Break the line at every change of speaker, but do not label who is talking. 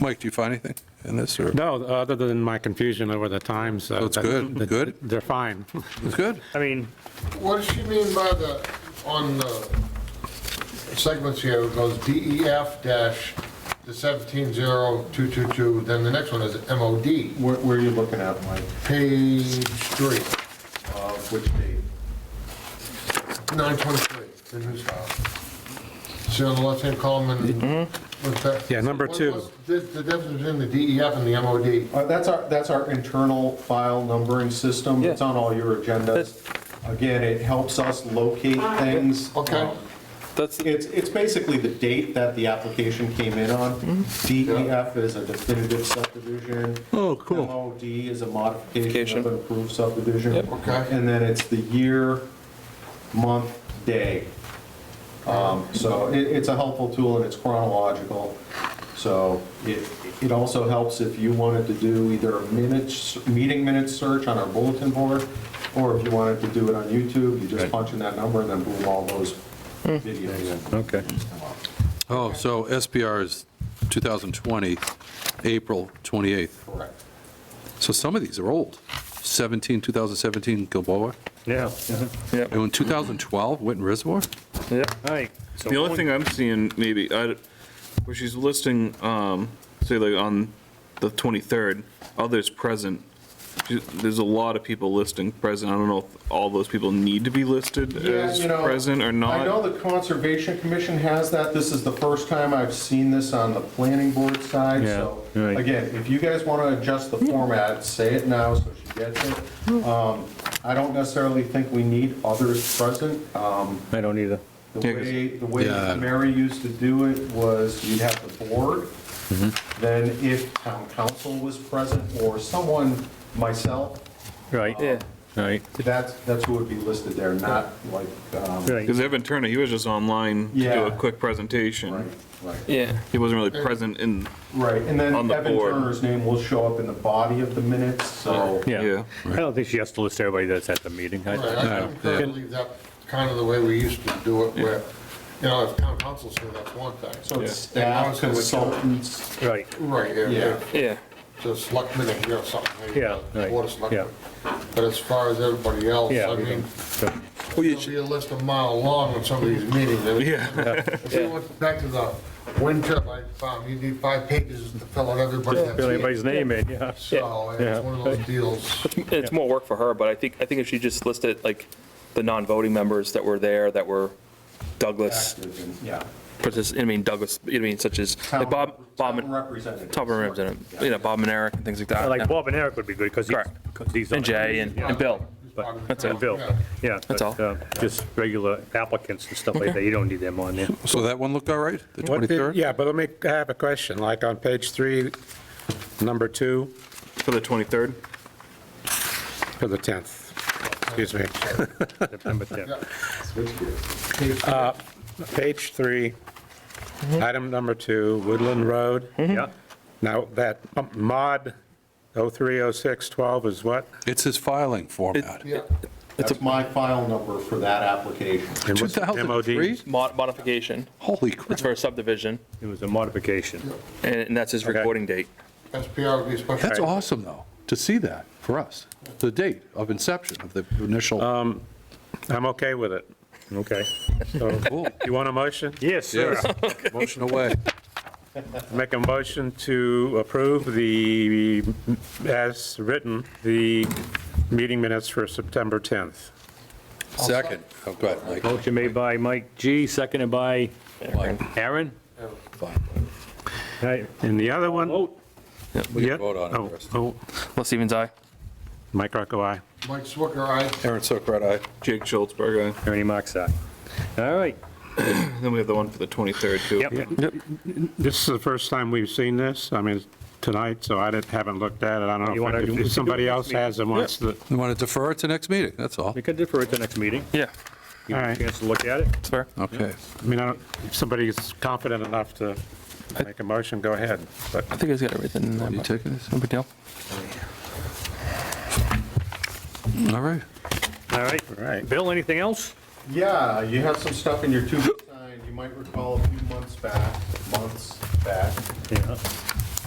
Mike, do you find anything in this, or?
No, other than my confusion over the times. uh,
it's
that-
good,
that-
good?
They're fine.
It's good.
I mean,
What does she mean by the, on the segments here, it goes DEF dash the 170222, then the next one is MOD,
Where, where are you looking at, Mike?
page three,
Uh, Which date?
923, the new file. See on the left-hand column and what's that?
Mm-hmm. Yeah, number
What-
two.
what's The the difference between the DEF and the MOD.
Uh, That's our, that's our internal file numbering system. It's on all your agendas. Again, it helps us locate things.
Ah,
Um,
Okay.
That's,
It's, it's basically the date that the application came in on.
Mm-hmm.
DEF is a definitive subdivision.
Oh, cool.
MOD is a modification
Application.
of an approved subdivision.
Yep.
Okay.
And then it's the year, month, day. Um, So it, it's a helpful tool and it's chronological. So it, it also helps if you wanted to do either a minutes, meeting minutes search on our bulletin board, or if you wanted to do it on YouTube, you just punch in that number and then boom, all those videos.
Okay.
Oh, so SPR is 2020, April 28th.
Correct.
So some of these are old. 17, 2017 Gilboa,
yeah,
and in 2012 Witten Reservoir?
Yeah.
all right. So
The only thing I'm seeing maybe, I, where she's listing, um, say like on the 23rd, others present. She- There's a lot of people listing present. I don't know if all those people need to be listed
Yeah,
as
you know,
present or
I know
not.
the Conservation Commission has that. This is the first time I've seen this on the planning board side,
Yeah,
so.
right.
Again, if you guys want to adjust the format, say it now so she gets it. Um, I don't necessarily think we need others present. Um,
I don't either.
The
Yeah, 'cause-
way, the way
Yeah.
Mary used to do it was you'd have the board,
Mm-hmm.
then if town council was present or someone, myself,
Right,
yeah,
right,
that's, that's who would be listed there, not like, um,
right.
Because Evan Turner, he was just online to do a
Yeah.
quick presentation.
right, right.
yeah.
He wasn't really present in,
Right, and then
On the
Evan
board.
Turner's name will show up in the body of the minutes, so.
yeah.
Yeah. I don't think she has to list everybody that's at the meeting. I-
Right, I think I believe that kind of the way we used to do it, where, you know, if town council's here, that's one thing.
So it's
Yeah.
staff, consultants,
Right,
Right, yeah,
Yeah.
yeah.
Yeah,
the selectmen if you have something. maybe,
Yeah, right,
Board of Selectmen. But as far as everybody else,
Yeah,
I
we
mean,
Well,
it'll be a list a mile long in some of these meetings. Yeah. If you went back to the wind turbine farm, you need five pages to fill out everybody that's
fill
here.
everybody's name in, yeah.
So
Yeah.
it's one of those deals.
it's more work for her, but I think, I think if she just listed like the non-voting members that were there, that were Douglas,
active and- yeah.
partici- I mean Douglas, you know, I mean, such as, like Bob, Bob,
Town representatives.
top of representative, you know, Bob and Eric and things like that.
Like Bob and Eric would be good, because
Correct.
he's.
And Jay and, and Bill.
But-
That's
And
it.
Bill,
Yeah.
yeah.
That's
but,
all.
uh, Just regular applicants and stuff like that, you don't need them on there.
So that one looked all right, the
What
23rd?
did- Yeah, but let me, I have a question, like on page three, number two,
For the 23rd?
for the 10th, excuse me,
September 10th.
Switch gears.
page three, item number two, Woodland Road.
Mm-hmm.
Yeah,
Now, that mod 030612 is what?
It's his filing format.
Yeah,
That's my file number for that application.
And what's the MOD?
2003?
Mod- Modification,
Holy
it's
crap,
for a subdivision,
it was a modification.
and and that's his
Okay.
recording date.
SPR would be a special.
that's awesome, though, to see that for us, the date of inception of the
Um,
initial,
I'm okay with it.
Okay.
So,
Cool.
You want a motion?
Yes, sir.
Yes. motion away.
Make a motion to approve the, as written, the meeting minutes for September 10th.
Second, oh, go ahead, Mike.
Motion made by Mike G, seconded by
Mike,
Aaron.
fine.
All right,
And the other one?
Vote.
We
Yeah.
can vote on
Oh,
it first.
oh,
Les Stevens, aye.
Mike Rocco, aye.
Mike Swicker, I,
Aaron Sokrat, aye.
Jake Schultzberg, aye.
Ernie Mac's aye. All right,
Then we have the one for the 23rd, too.
yep.
This is the first time we've seen this, I mean, tonight, so I didn't- haven't looked at it. I don't
You
know
wanna-
if- if somebody else has and wants to,
We want to defer it to next meeting, that's all.
We could defer it to next meeting.
Yeah,
Give you
All
a
right.
chance to look at it.
that's fair.
Okay.
I mean, I don't- if somebody's confident enough to make a motion, go ahead. But
I think he's got everything in there.
You
but
taking this?
No big deal.
All right.
All right.
right.
Bill, anything else?
Yeah, you have some stuff in your to-be sign. You might recall a few months back, months back,
Yeah.